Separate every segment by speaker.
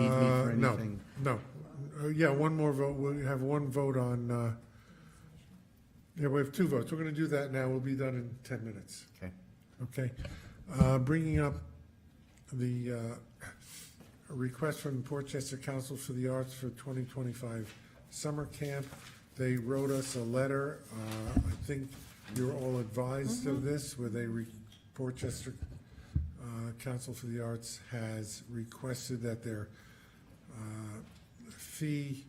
Speaker 1: No,
Speaker 2: anything?
Speaker 1: no. Uh, Yeah, one more vote, we'll have one vote on, uh, yeah, we have two votes. We're going to do that now, we'll be done in 10 minutes,
Speaker 2: Okay.
Speaker 1: okay? Uh, Bringing up the uh, request from Portchester Council for the Arts for 2025 summer camp. They wrote us a letter, uh, I think you're all advised
Speaker 3: Mm-hmm.
Speaker 1: of this, where they, re- Portchester uh, Council for the Arts has requested that their uh, fee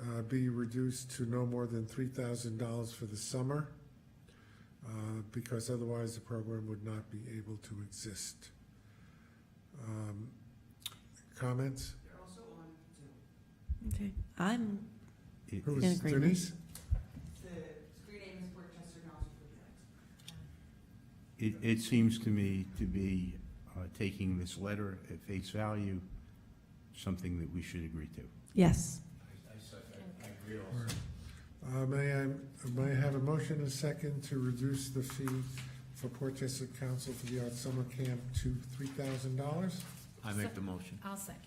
Speaker 1: uh, be reduced to no more than three thousand dollars for the summer, uh, because otherwise the program would not be able to exist. Um, Comments?
Speaker 3: Okay, I'm,
Speaker 1: Who
Speaker 3: In
Speaker 1: was
Speaker 3: agreement.
Speaker 1: Denise?
Speaker 2: It, it seems to me to be uh, taking this letter at face value, something that we should agree to.
Speaker 3: yes.
Speaker 1: Uh, May I, may I have a motion and a second to reduce the fee for Portchester Council for the Arts Summer Camp to three thousand dollars?
Speaker 4: I make the motion.
Speaker 5: I'll second.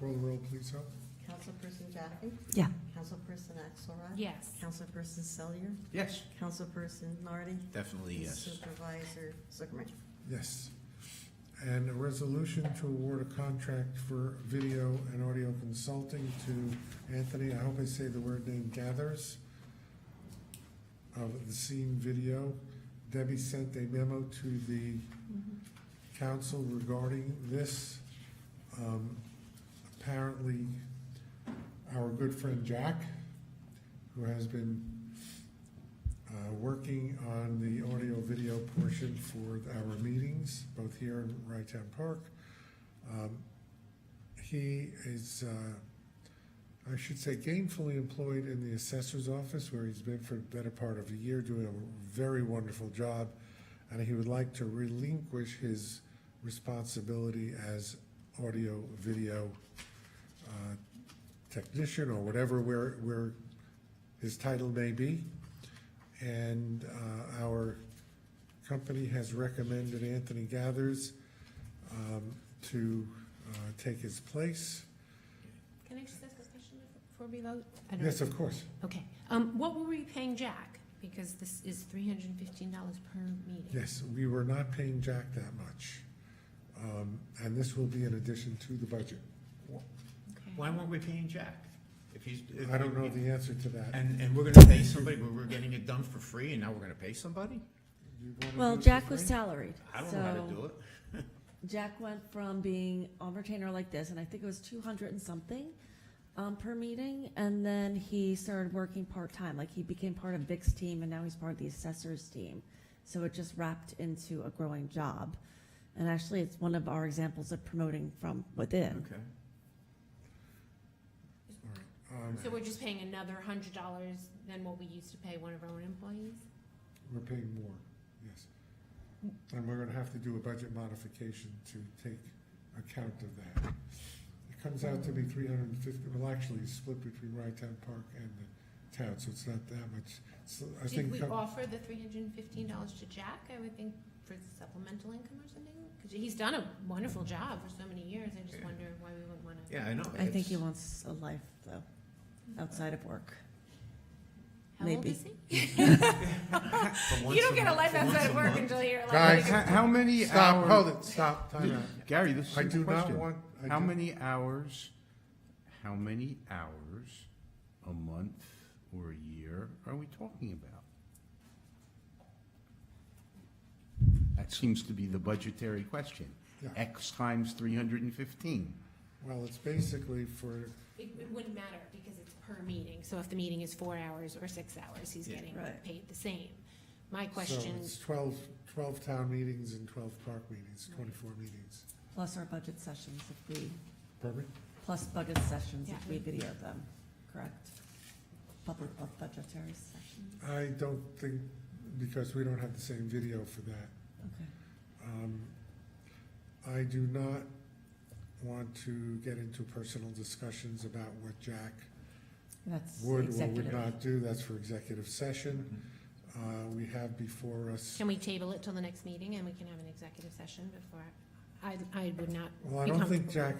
Speaker 1: Call the roll, please, Hope.
Speaker 6: Councilperson Jaffe?
Speaker 3: Yeah.
Speaker 6: Councilperson Axelrod?
Speaker 5: Yes.
Speaker 6: Councilperson Selyer?
Speaker 4: Yes.
Speaker 6: Councilperson Nardi?
Speaker 4: Definitely yes.
Speaker 6: Supervisor Zuckerman?
Speaker 1: Yes. And a resolution to award a contract for video and audio consulting to Anthony, I hope I say the word name, Gathers of the Scene Video. Debbie sent a memo to the council regarding this. Um, Apparently, our good friend Jack, who has been uh, working on the audio-video portion for our meetings, both here in Rytown Park. Um, He is, uh, I should say gainfully employed in the assessor's office, where he's been for the better part of a year, doing a very wonderful job, and he would like to relinquish his responsibility as audio-video uh, technician, or whatever where, where his title may be. And uh, our company has recommended Anthony Gathers um, to uh, take his place.
Speaker 5: Can I just ask a question before we vote? I don't-
Speaker 1: Yes, of course.
Speaker 5: Okay, um, what were we paying Jack? Because this is three hundred and fifteen dollars per meeting.
Speaker 1: Yes, we were not paying Jack that much. Um, And this will be in addition to the budget.
Speaker 5: Okay.
Speaker 4: Why weren't we paying Jack? If he's. if-
Speaker 1: I don't know the answer to that.
Speaker 4: And, and we're gonna pay somebody, but we're getting it done for free and now we're gonna pay somebody?
Speaker 1: You wanna do
Speaker 3: Well,
Speaker 1: it for
Speaker 3: Jack was
Speaker 1: free?
Speaker 3: salaried,
Speaker 4: Mm-hmm. I don't know how to
Speaker 3: so
Speaker 4: do it.
Speaker 3: Jack went from being on retainer like this, and I think it was two hundred and something, um, per meeting, and then he started working part-time, like he became part of Vic's team, and now he's part of the assessor's team. So it just wrapped into a growing job, and actually, it's one of our examples of promoting from within.
Speaker 4: Okay.
Speaker 1: Um,
Speaker 5: So we're just paying another hundred dollars than what we used to pay one of our own employees?
Speaker 1: We're paying more, yes. And we're gonna have to do a budget modification to take account of that. It comes out to be three hundred and fifty, well, actually, it's split between Rytown Park and the town, so it's not that much. So I
Speaker 5: Did
Speaker 1: think,
Speaker 5: we
Speaker 1: com-
Speaker 5: offer the three hundred and fifteen dollars to Jack, I would think, for supplemental income or something? Because he's done a wonderful job for so many years, I just
Speaker 4: Yeah.
Speaker 5: wonder why we wouldn't wanna.
Speaker 4: Yeah, I know.
Speaker 3: I think
Speaker 4: It's-
Speaker 3: he wants a life, though, outside of work.
Speaker 5: How old
Speaker 3: Maybe.
Speaker 5: is he?
Speaker 4: for once
Speaker 5: You don't get a
Speaker 4: month-
Speaker 5: life
Speaker 4: for once
Speaker 5: outside
Speaker 4: a
Speaker 5: of work
Speaker 4: month.
Speaker 5: until you're like.
Speaker 1: Guys,
Speaker 2: How how many hours?
Speaker 1: stop, hold it, stop, time out.
Speaker 2: Gary, this is
Speaker 1: I
Speaker 2: a
Speaker 1: do
Speaker 2: good
Speaker 1: not
Speaker 2: question.
Speaker 1: want, I
Speaker 2: How
Speaker 1: do-
Speaker 2: many hours, how many hours a month or a year are we talking about? That seems to be the budgetary question.
Speaker 1: Yeah.
Speaker 2: X times three hundred and fifteen.
Speaker 1: well, it's basically for,
Speaker 5: It, it wouldn't matter because it's per meeting, so if the meeting is four hours or six hours, he's
Speaker 4: Yeah.
Speaker 5: getting
Speaker 3: Right.
Speaker 5: paid the same. My
Speaker 1: so
Speaker 5: question,
Speaker 1: it's twelve, twelve town meetings and twelve park meetings, twenty-four meetings.
Speaker 3: Plus our budget sessions if we,
Speaker 1: Pardon me?
Speaker 3: plus budget sessions if
Speaker 5: Yeah.
Speaker 3: we video them, correct? Public bu- budgetary sessions,
Speaker 1: I don't think, because we don't have the same video for that.
Speaker 3: okay.
Speaker 1: Um, I do not want to get into personal discussions about what Jack
Speaker 3: That's
Speaker 1: would or would
Speaker 3: executive.
Speaker 1: not do. That's for executive session. Uh, We have before us,
Speaker 5: Mm-hmm. can we table it till the next meeting and we can have an executive session before? I, I would not
Speaker 1: well, I
Speaker 5: be
Speaker 1: don't think
Speaker 5: comfortable.
Speaker 1: Jack